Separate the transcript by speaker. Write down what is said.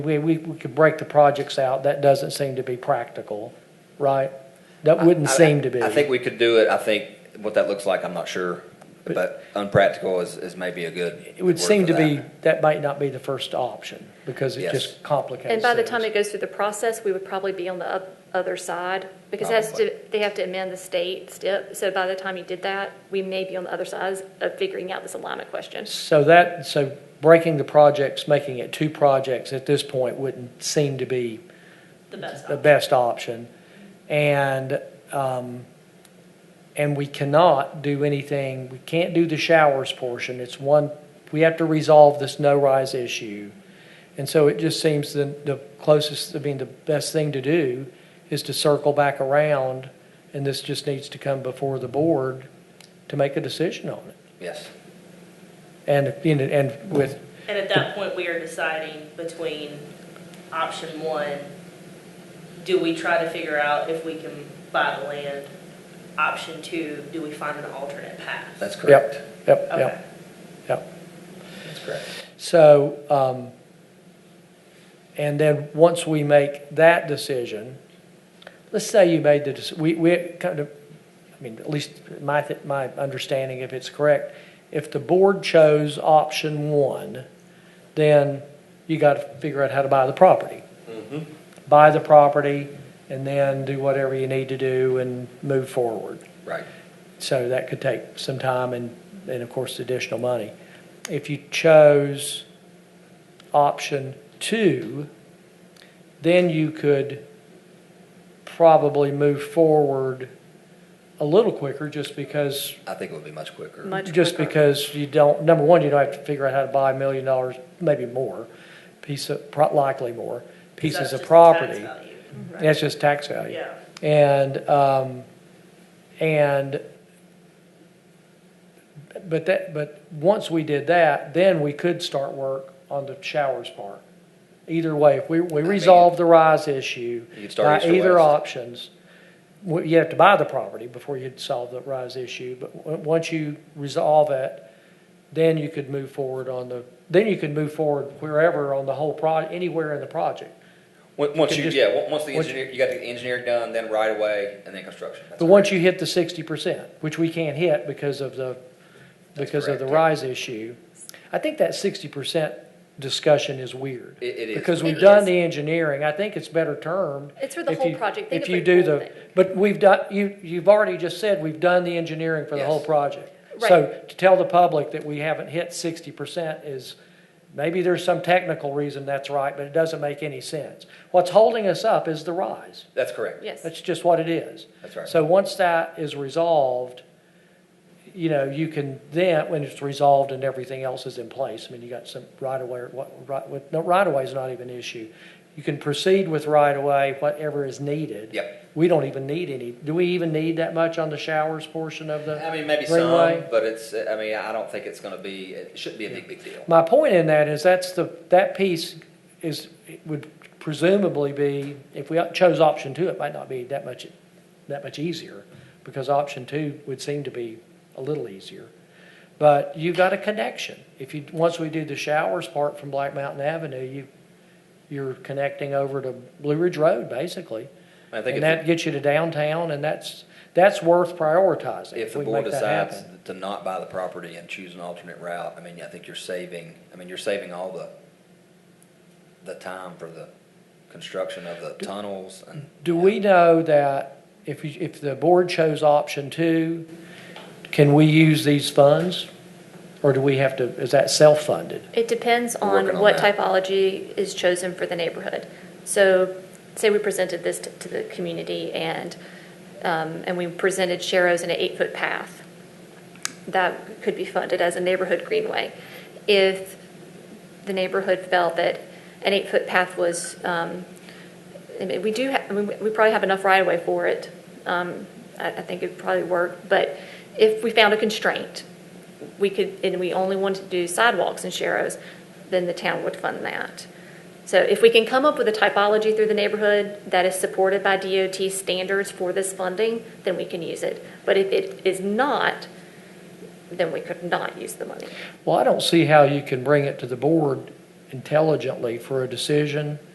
Speaker 1: We, we, we could break the projects out, that doesn't seem to be practical, right? That wouldn't
Speaker 2: I- I-
Speaker 1: seem to be.
Speaker 2: I think we could do it. I think what that looks like, I'm not sure.
Speaker 1: But-
Speaker 2: But unpractical is, is maybe a good.
Speaker 1: It would
Speaker 2: word
Speaker 1: seem
Speaker 2: for
Speaker 1: to be,
Speaker 2: that.
Speaker 1: that might not be the first option, because it
Speaker 2: Yes.
Speaker 1: just complicates
Speaker 3: And by the time
Speaker 1: things.
Speaker 3: it goes through the process, we would probably be on the oth- other side, because it has to,
Speaker 2: Probably.
Speaker 3: they have to amend the state step, so by the time you did that, we may be on the other side of figuring out this alignment question.
Speaker 1: So that, so breaking the projects, making it two projects at this point wouldn't seem to be
Speaker 4: the best
Speaker 1: the
Speaker 4: option.
Speaker 1: best option. And, um, and we cannot do anything, we can't do the showers portion. It's one, we have to resolve this no rise issue. And so it just seems the, the closest, I mean, the best thing to do is to circle back around. And this just needs to come before the board to make a decision on it.
Speaker 2: Yes.
Speaker 1: And, you know, and with,
Speaker 4: And at that point, we are deciding between option one, do we try to figure out if we can buy the land? Option two, do we find an alternate path?
Speaker 2: That's
Speaker 1: yep,
Speaker 2: correct.
Speaker 1: yep,
Speaker 4: Okay.
Speaker 1: yep, yep.
Speaker 2: That's correct.
Speaker 1: So, um, and then once we make that decision, let's say you made the, dec- we, we kind of, I mean, at least my, th- my understanding, if it's correct, if the board chose option one, then you got to figure out how to buy the property.
Speaker 2: Mm-hmm.
Speaker 1: Buy the property and then do whatever you need to do and move forward.
Speaker 2: Right.
Speaker 1: So that could take some time and, and of course, additional money. If you chose option two, then you could probably move forward a little quicker just because,
Speaker 2: I think it would be much quicker.
Speaker 3: Much
Speaker 1: just
Speaker 3: quicker.
Speaker 1: because you don't, number one, you don't have to figure out how to buy a million dollars, maybe more, piece of, pro- likely more, pieces
Speaker 4: That's
Speaker 1: of
Speaker 4: just
Speaker 1: property.
Speaker 4: tax value, right?
Speaker 1: That's just tax value.
Speaker 4: Yeah.
Speaker 1: And, um, and, but that, but once we did that, then we could start work on the showers part. Either way, if we, we
Speaker 2: mean-
Speaker 1: resolve the rise issue
Speaker 2: You could start
Speaker 1: by
Speaker 2: east or
Speaker 1: either
Speaker 2: west.
Speaker 1: options, w- you have to buy the property before you'd solve the rise issue, but w- once you resolve it, then you could move forward on the, then you could move forward wherever on the whole pro, anywhere in the project.
Speaker 2: Once once
Speaker 1: Could
Speaker 2: you,
Speaker 1: just-
Speaker 2: yeah, on- once the
Speaker 1: once-
Speaker 2: engineer, you got the engineer done, then right away, and then construction. That's
Speaker 1: But once you hit the sixty percent, which we can't hit because of the, because of the
Speaker 2: correct.
Speaker 1: rise issue, I think that sixty percent discussion is weird.
Speaker 2: It- it is.
Speaker 1: Because we've
Speaker 3: It
Speaker 1: done
Speaker 3: is.
Speaker 1: the engineering, I think it's better termed.
Speaker 3: It's for the
Speaker 1: if
Speaker 3: whole
Speaker 1: you-
Speaker 3: project. Think
Speaker 1: If
Speaker 3: of
Speaker 1: you
Speaker 3: the
Speaker 1: do
Speaker 3: whole
Speaker 1: the,
Speaker 3: thing.
Speaker 1: but we've done, you, you've already just said we've done the engineering for the whole
Speaker 2: Yes.
Speaker 1: project.
Speaker 3: Right.
Speaker 1: So to tell the public that we haven't hit sixty percent is, maybe there's some technical reason that's right, but it doesn't make any sense. What's holding us up is the rise.
Speaker 2: That's correct.
Speaker 3: Yes.
Speaker 1: That's just what it is.
Speaker 2: That's right.
Speaker 1: So once that is resolved, you know, you can then, when it's resolved and everything else is in place, I mean, you got some right away, what, right, with, no, right away is not even an issue. You can proceed with right away, whatever is needed.
Speaker 2: Yep.
Speaker 1: We don't even need any, do we even need that much on the showers portion of the?
Speaker 2: I mean, maybe
Speaker 1: Greenway?
Speaker 2: some, but it's, I mean, I don't think it's gonna be, it shouldn't be a big, big deal.
Speaker 1: My point in that is that's the, that piece is, it would presumably be, if we chose option two, it might not be that much, that much easier, because option two would seem to be a little easier. But you've got a connection. If you, once we do the showers part from Black Mountain Avenue, you, you're connecting over to Blue Ridge Road, basically.
Speaker 2: I think
Speaker 1: And
Speaker 2: if-
Speaker 1: that gets you to downtown, and that's, that's worth prioritizing.
Speaker 2: If the
Speaker 1: we
Speaker 2: board
Speaker 1: make that
Speaker 2: decides
Speaker 1: happen.
Speaker 2: to not buy the property and choose an alternate route, I mean, I think you're saving, I mean, you're saving all the, the time for the construction of the tunnels and.
Speaker 1: Do we know that if, you- if the board chose option two, can we use these funds? Or do we have to, is that self-funded?
Speaker 3: It depends
Speaker 2: We're working
Speaker 3: on
Speaker 2: on
Speaker 3: what
Speaker 2: that.
Speaker 3: typology is chosen for the neighborhood. So, say we presented this to- to the community and, um, and we presented Sharrow's in an eight-foot path. That could be funded as a neighborhood greenway. If the neighborhood felt that an eight-foot path was, um, I mean, we do, ha- I mean, we probably have enough right-of-way for it. Um, I, I think it'd probably work, but if we found a constraint, we could, and we only wanted to do sidewalks and sharrows, then the town would fund that. So if we can come up with a typology through the neighborhood that is supported by DOT standards for this funding, then we can use it. But if it is not, then we could not use the money.
Speaker 1: Well, I don't see how you can bring it to the board intelligently for a decision